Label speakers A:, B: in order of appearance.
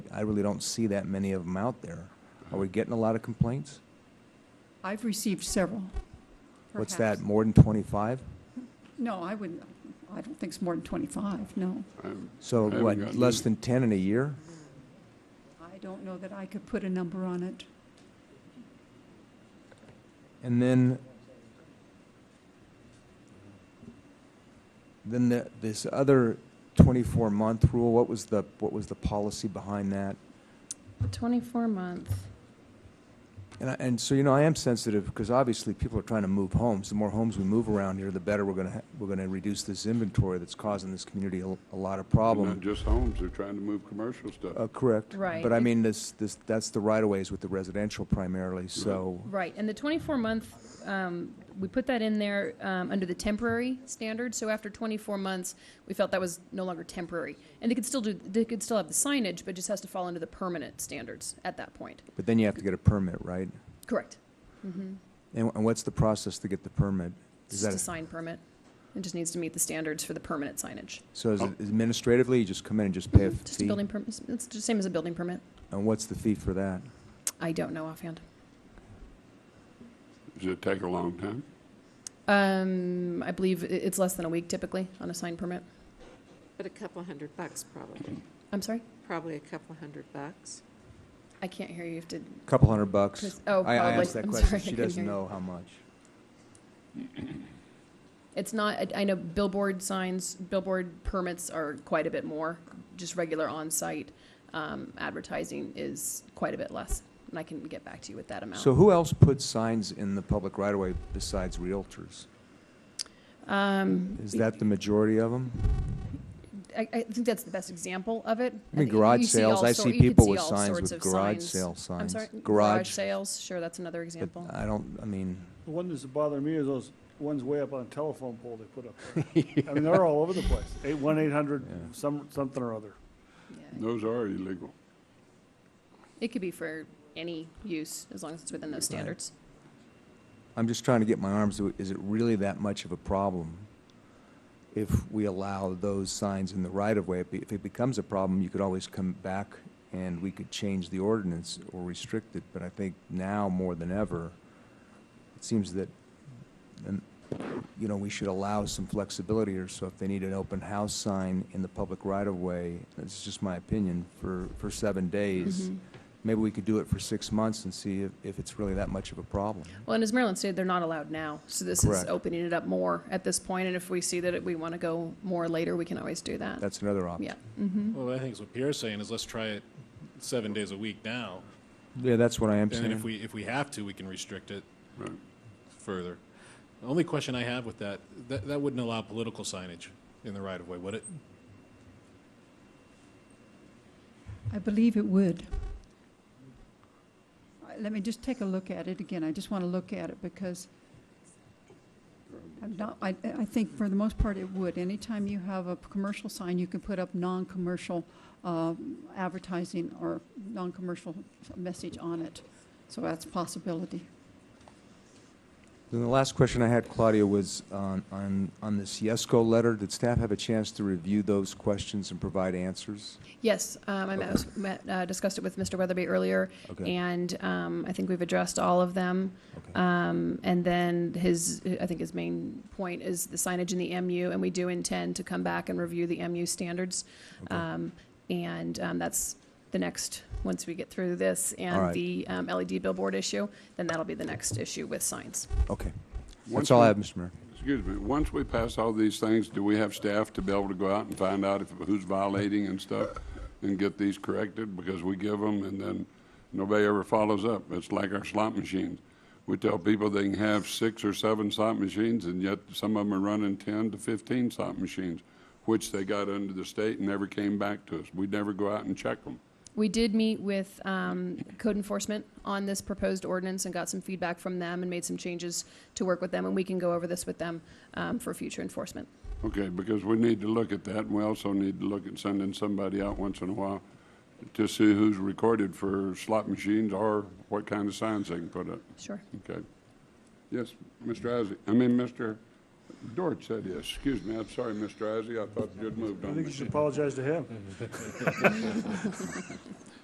A: I really don't see that many of them out there. Are we getting a lot of complaints?
B: I've received several.
A: What's that,
B: perhaps.
A: more than 25?
B: No, I wouldn't, I don't think it's more than 25, no.
C: Um,
A: So
C: haven't
A: what,
C: gotten
A: less than
C: any.
A: 10 in a year?
B: I don't know that I could put a number on it.
A: And then, then the, this other 24-month rule, what was the, what was the policy behind that?
D: 24 month.
A: And, I, and so, you know, I am sensitive because obviously people are trying to move homes. The more homes we move around here, the better we're going to, ha- we're going to reduce this inventory that's causing this community a, a lot of
C: Not
A: problem.
C: just homes, they're trying to move commercial stuff.
A: Uh, correct.
D: Right.
A: But I mean, this, this, that's the right of ways with the residential primarily, so.
D: Right, and the 24 month, um, we put that in there um, under the temporary standard. So after 24 months, we felt that was no longer temporary, and they could still do, they could still have the signage, but it just has to fall under the permanent standards at that point.
A: But then you have to get a permit, right?
D: Correct.
A: And, and what's the process to get the permit?
D: It's
A: Is
D: just
A: that,
D: a sign permit. It just needs to meet the standards for the permanent signage.
A: so is it administratively, you just come in and just pay a
D: Just a
A: fee?
D: building permit. It's the same as a building permit.
A: And what's the fee for that?
D: I don't know offhand.
C: Does it take a long time?
D: Um, I believe i- it's less than a week typically on a sign permit.
E: But a couple hundred bucks probably,
D: I'm sorry,
E: probably a couple hundred bucks.
D: I can't hear you. You have to.
A: Couple hundred bucks.
D: Chris- oh,
A: I- I
D: probably.
A: asked that
D: I'm
A: question.
D: sorry, I
A: She
D: couldn't
A: doesn't
D: hear you.
A: know how much.
D: It's not, I- I know billboard signs, billboard permits are quite a bit more, just regular on-site um, advertising is quite a bit less, and I can get back to you with that amount.
A: So who else puts signs in the public right of way besides realtors?
D: Um,
A: Is that the majority of them?
D: I, I think that's the best example of
A: I
D: it.
A: mean,
D: think you
A: garage
D: see
A: sales,
D: all
A: I
D: sor-
A: see
D: you could
A: people
D: see
A: with
D: all
A: signs
D: sorts
A: with
D: of
A: garage
D: signs.
A: sale
D: I'm
A: signs.
D: sorry, garage
A: Garage,
D: sales, sure, that's another
A: but
D: example.
A: I don't, I mean,
F: The one that's bothering me is those ones way up on a telephone pole they put up. there. I mean, they're all over the place. Eight, one eight hundred,
A: Yeah.
F: some, something or other.
D: Yeah.
C: Those are illegal.
D: It could be for any use, as long as it's within those standards.
A: I'm just trying to get my arms, is it really that much of a problem? If we allow those signs in the right of way, If it- if it becomes a problem, you could always come back and we could change the ordinance or restrict it, but I think now more than ever, it seems that, um, you know, we should allow some flexibility here, so if they need an open house sign in the public right of way, that's just my opinion, for, for seven days, maybe we could do it for six months and see if, if it's really that much of a problem.
D: Well, and as Maryland stated, they're not allowed now, so this is
A: Correct.
D: opening it up more at this point, and if we see that we want to go more later, we can always do that.
A: That's another option.
D: Yeah.
G: Well, I think it's what Pierre's saying is let's try it seven days a week now.
A: Yeah, that's what I am
G: And then if
A: saying.
G: we, if we have to, we can restrict it
C: Right.
G: further. The only question I have with that, that, that wouldn't allow political signage in the right of way, would it?
B: I believe it would. Uh, Let me just take a look at it again. I just want to look at it because I'm not, I, I think for the most part it would. Anytime you have a commercial sign, you can put up non-commercial um, advertising or non-commercial message on it. So that's a possibility.
A: Then the last question I had, Claudia, was on, on, on this YESCO letter. Did staff have a chance to review those questions and provide answers?
D: Yes, um, I
A: Okay.
D: met- met, uh, discussed it with Mr. Weatherby earlier,
A: Okay.
D: and um, I think we've addressed all of them.
A: Okay.
D: Um, And then his, I think his main point is the signage in the MU, and we do intend to come back and review the MU standards.
A: Okay.
D: Um, And um, that's the next, once we get through this
A: All
D: and
A: right.
D: the um, LED billboard issue, then that'll be the next issue with signs.
A: Okay. That's
C: Once
A: all
C: we-
A: I have, Mr. Mayor.
C: Excuse me, once we pass all these things, do we have staff to be able to go out and find out if, who's violating and stuff? And get these corrected, because we give them and then nobody ever follows up. It's like our slot machines. We tell people they can have six or seven slot machines and yet some of them are running ten to fifteen slot machines, which they got under the state and never came back to us. We never go out and check them.
D: We did meet with um, code enforcement on this proposed ordinance and got some feedback from them and made some changes to work with them, and we can go over this with them um, for future enforcement.
C: Okay, because we need to look at that, and we also need to look at sending somebody out once in a while to see who's recorded for slot machines or what kind of signs they can put up,
D: Sure.
C: okay? Yes, Mr. Isaac, I mean, Mr. Dorch said yes, excuse me, I'm sorry, Mr. Isaac, I thought you'd moved
F: I
C: on
F: think
C: me.
F: you should apologize to him.